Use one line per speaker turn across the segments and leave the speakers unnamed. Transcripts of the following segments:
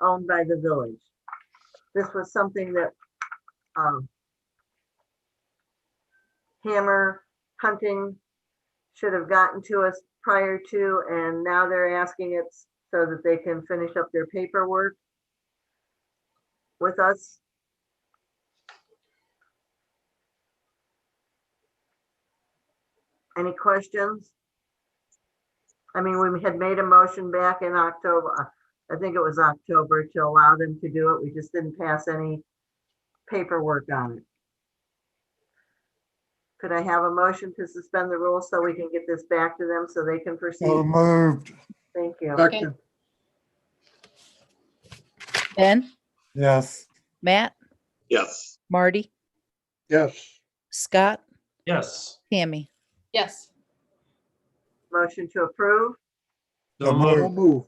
owned by the village. This was something that, um, Hammer Hunting should have gotten to us prior to, and now they're asking it so that they can finish up their paperwork with us. Any questions? I mean, we had made a motion back in October, uh, I think it was October, to allow them to do it. We just didn't pass any paperwork on it. Could I have a motion to suspend the rules so we can get this back to them so they can
So
proceed?
Oh, moved.
Thank you.
Second,
Ben,
Yes.
Matt,
Yes.
Marty,
yes,
Scott,
Yes.
Tammy,
yes,
Motion to approve?
So
so
moved.
move,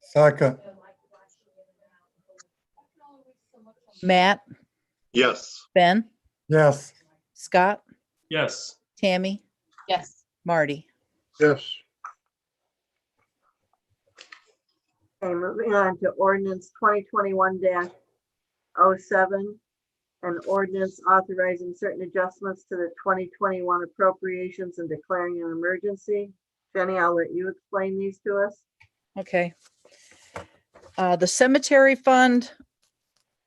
Second.
Matt,
Yes.
Ben,
Yes.
Scott,
Yes.
Tammy,
yes,
Marty.
yes,
Okay, moving on to ordinance twenty twenty-one 7 An ordinance authorizing certain adjustments to the twenty twenty-one appropriations and declaring an emergency. Jenny, I'll let you explain these to us.
Okay. Uh, the cemetery fund,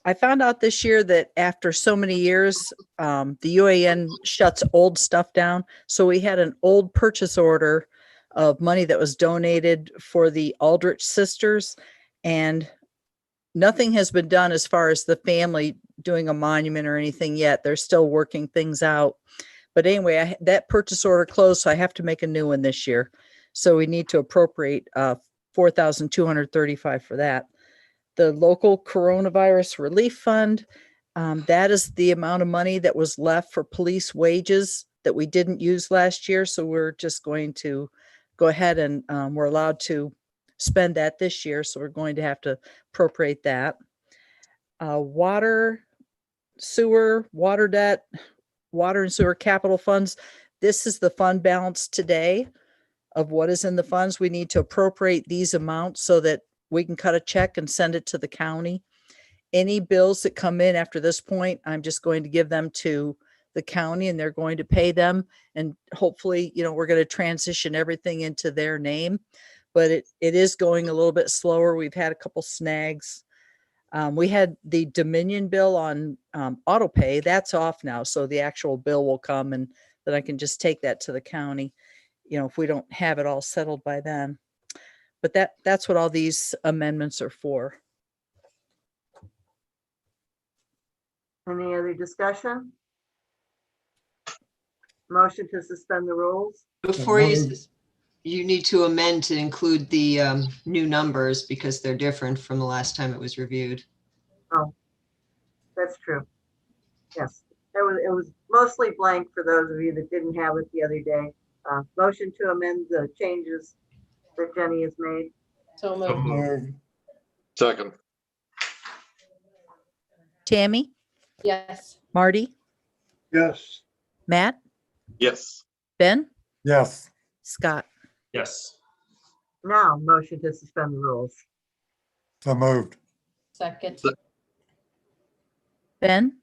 I found out this year that after so many years, um, the UAN shuts old stuff down. So we had an old purchase order of money that was donated for the Aldrich sisters and nothing has been done as far as the family doing a monument or anything yet. They're still working things out. But anyway, I, that purchase order closed, so I have to make a new one this year. So we need to appropriate, uh, four thousand two hundred thirty-five for that. The local coronavirus relief fund, um, that is the amount of money that was left for police wages that we didn't use last year, so we're just going to go ahead and, um, we're allowed to spend that this year, so we're going to have to appropriate that. Uh, water, sewer, water debt, water and sewer capital funds. This is the fund balance today of what is in the funds. We need to appropriate these amounts so that we can cut a check and send it to the county. Any bills that come in after this point, I'm just going to give them to the county and they're going to pay them. And hopefully, you know, we're going to transition everything into their name. But it, it is going a little bit slower. We've had a couple snags. Um, we had the Dominion bill on, um, auto pay. That's off now. So the actual bill will come and then I can just take that to the county you know, if we don't have it all settled by then. But that, that's what all these amendments are for.
Any other discussion? Motion to suspend the rules?
Before you,
Mhm.
sus- you need to amend to include the um, new numbers because they're different from the last time it was reviewed.
That's true. Yes, it was, it was mostly blank for those of you that didn't have it the other day. Uh, motion to amend the changes that Jenny has made.
so
So
moved,
moved.
Second.
Tammy,
yes,
Marty,
yes,
Matt,
Yes.
Ben,
Yes.
Scott,
Yes.
Now, motion to suspend the rules.
So moved.
second,
Ben,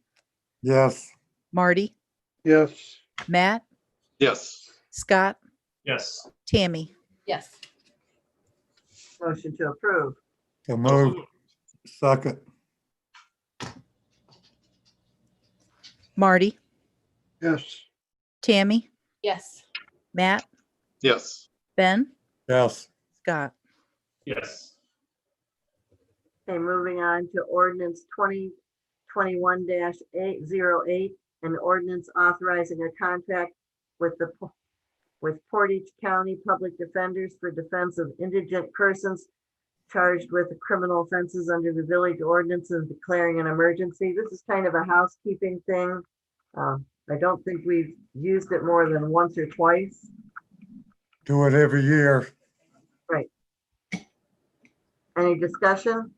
Yes.
Marty,
yes,
Matt,
Yes.
Scott,
Yes.
Tammy,
yes,
Motion to approve.
So moved. Second.
Marty,
yes,
Tammy,
yes,
Matt,
Yes.
Ben,
Yes.
Scott.
Yes.
Okay, moving on to ordinance twenty twenty-one eight zero eight, an ordinance authorizing a contract with the Po- with Portage County Public Defenders for defense of indigent persons charged with criminal offenses under the village ordinance and declaring an emergency. This is kind of a housekeeping thing. Uh, I don't think we've used it more than once or twice.
Do it every year.
Any discussion?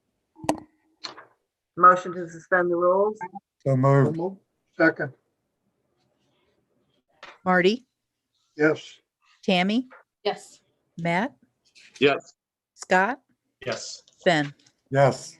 Motion to suspend the rules?
So
so
moved.
moved. second,
Marty,
yes,
Tammy,
yes,
Matt,
Yes.
Scott,
Yes.
Ben,
Yes.